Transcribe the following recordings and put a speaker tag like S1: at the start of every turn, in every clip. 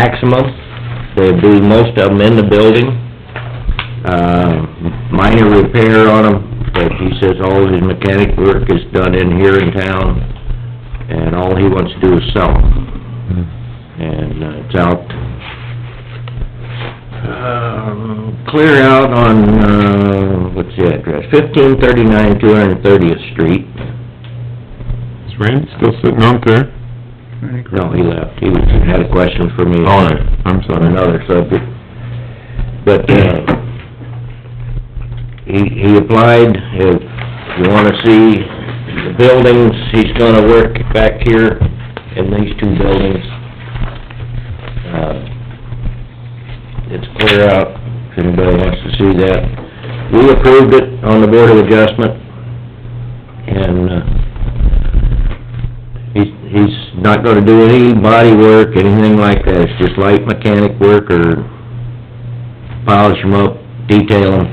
S1: maximum. They'll do most of them in the building. Uh, minor repair on them, but he says all of his mechanic work is done in here in town, and all he wants to do is sell 'em. And uh, it's out, um, clear out on, uh, what's the address? Fifteen thirty-nine, two hundred and thirtieth street.
S2: Is Randy still sitting out there?
S1: No, he left. He was, had a question for me.
S2: All right, Oh, I'm
S1: on
S2: sorry.
S1: another subject. But, uh, he, he applied, if you wanna see the buildings, he's gonna work back here in these two buildings. Uh, It's clear out, if anybody wants to see that. We approved it on the Board of Adjustment, and, uh, He's, he's not gonna do any body work, anything like that, it's just light mechanic work or polish them up, detail them,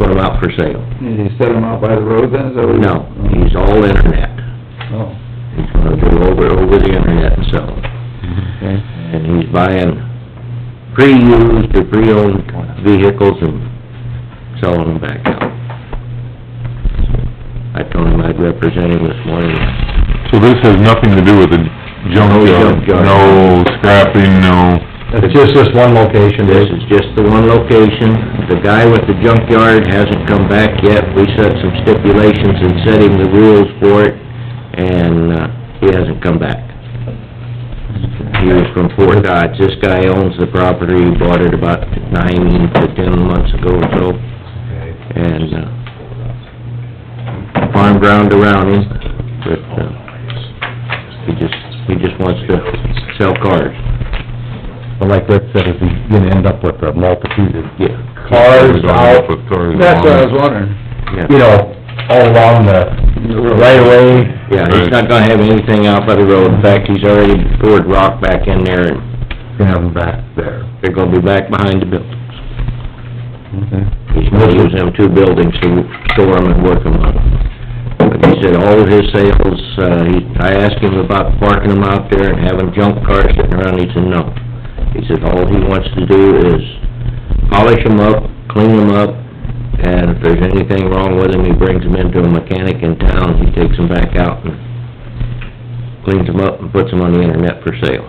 S1: put them out for sale.
S3: Did he set them out by the road then, is that what you-
S1: No, he's all internet.
S3: Oh,
S1: He's gonna do over, over the internet and sell 'em.
S3: okay.
S1: And he's buying pre-used or pre-owned vehicles and selling them back out. I told him I'd represent him this morning.
S2: So this has nothing to do with the
S1: No
S2: junkyard,
S1: junk yard.
S2: no scrapping, no...
S1: It's just this one location, This is just the one location. The guy with the junkyard hasn't come back yet. We set some stipulations and setting the rules for it, and, uh, he hasn't come back. He was from Fort Dodge. This guy owns the property, He bought it about nine to ten months ago or so, and, uh, farm ground around him, but, uh, he just, he just wants to sell cars.
S4: But like Rick said, is he gonna end up with a multitude of
S1: Yeah.
S4: cars
S2: Goes
S4: out,
S2: off with cars
S3: That's what I
S2: along.
S3: was wondering.
S1: Yeah.
S4: you know, all along the right of way?
S1: Yeah, he's not gonna have anything out by the road, in fact, he's already poured rock back in there, and
S4: Gonna have them back there.
S1: they're gonna be back behind the buildings.
S4: Okay.
S1: He's gonna use them two buildings to store them and work them on. But he said all of his sales, uh, he, I asked him about parking them out there and having junk cars sitting around, he said no. He said all he wants to do is polish them up, clean them up, and if there's anything wrong with them, he brings them into a mechanic in town, he takes them back out and cleans them up and puts them on the internet for sale.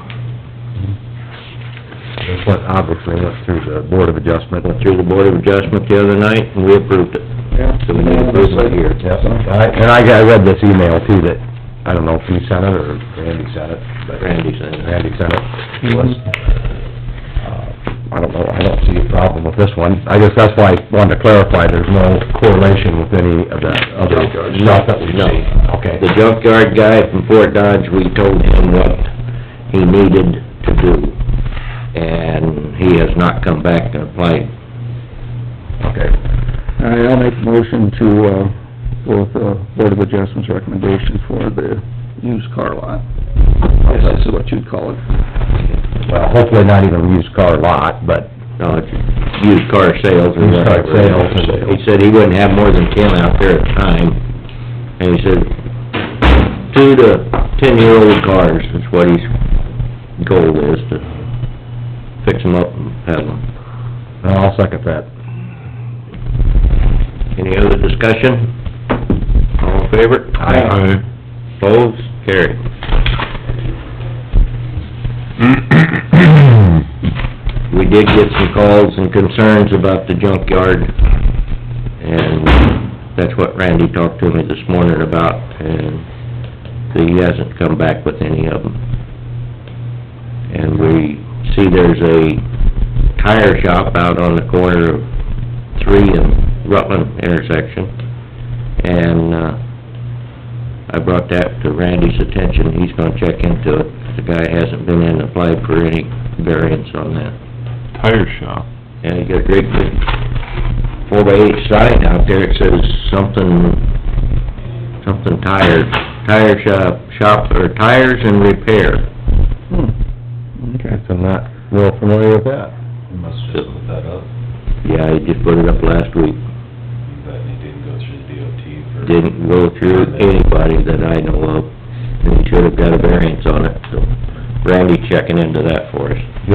S4: This went, obviously went through the board of adjustment.
S1: Went through the Board of Adjustment the other night, and we approved it.
S3: Yeah.
S1: So we need to prove it here.
S4: Yep, I- and I, I read this email too that, I don't know if you sent it or Randy sent it, but...
S1: Randy sent it.
S4: Randy sent it. It was, uh, I don't know, I don't see a problem with this one. I guess that's why I wanted to clarify, there's no correlation with any of that other stuff that we
S1: No.
S4: see. Okay.
S1: The junkyard guy from Fort Dodge, we told him what he needed to do, and he has not come back to apply.
S4: Okay.
S3: All right, I'll make a motion to, uh, go with the Board of Adjustments recommendation for the used car lot. I guess this is what you'd call it.
S4: Well, hopefully not even a used car lot, but
S1: No, it's used car sales or
S4: Used car
S1: whatever.
S4: sales and-
S1: He said he wouldn't have more than ten out there at the time, and he said, two to ten-year-old cars is what his goal is, to fix them up and have them.
S4: I'll second that.
S1: Any other discussion? All in favor?
S2: Aye.
S1: Opposed? Carried. We did get some calls and concerns about the junkyard, and that's what Randy talked to me this morning about, and he hasn't come back with any of them. And we see there's a tire shop out on the corner of Three and Rutland intersection, and, uh, I brought that to Randy's attention, he's gonna check into it. The guy hasn't been in and applied for any variance on that.
S2: Tire shop.
S1: And he got a great big four by eight sign out there, it says something, something tires, tire shop, shop, or tires and repair.
S3: Hmm, okay.
S4: I'm not real familiar with that.
S5: You must have just put that up,
S1: Yeah, he just put it up last week,
S5: but it didn't go through the DOT for...
S1: didn't go through anybody that I know of, and he should have got a variance on it, so Randy's checking into that for us.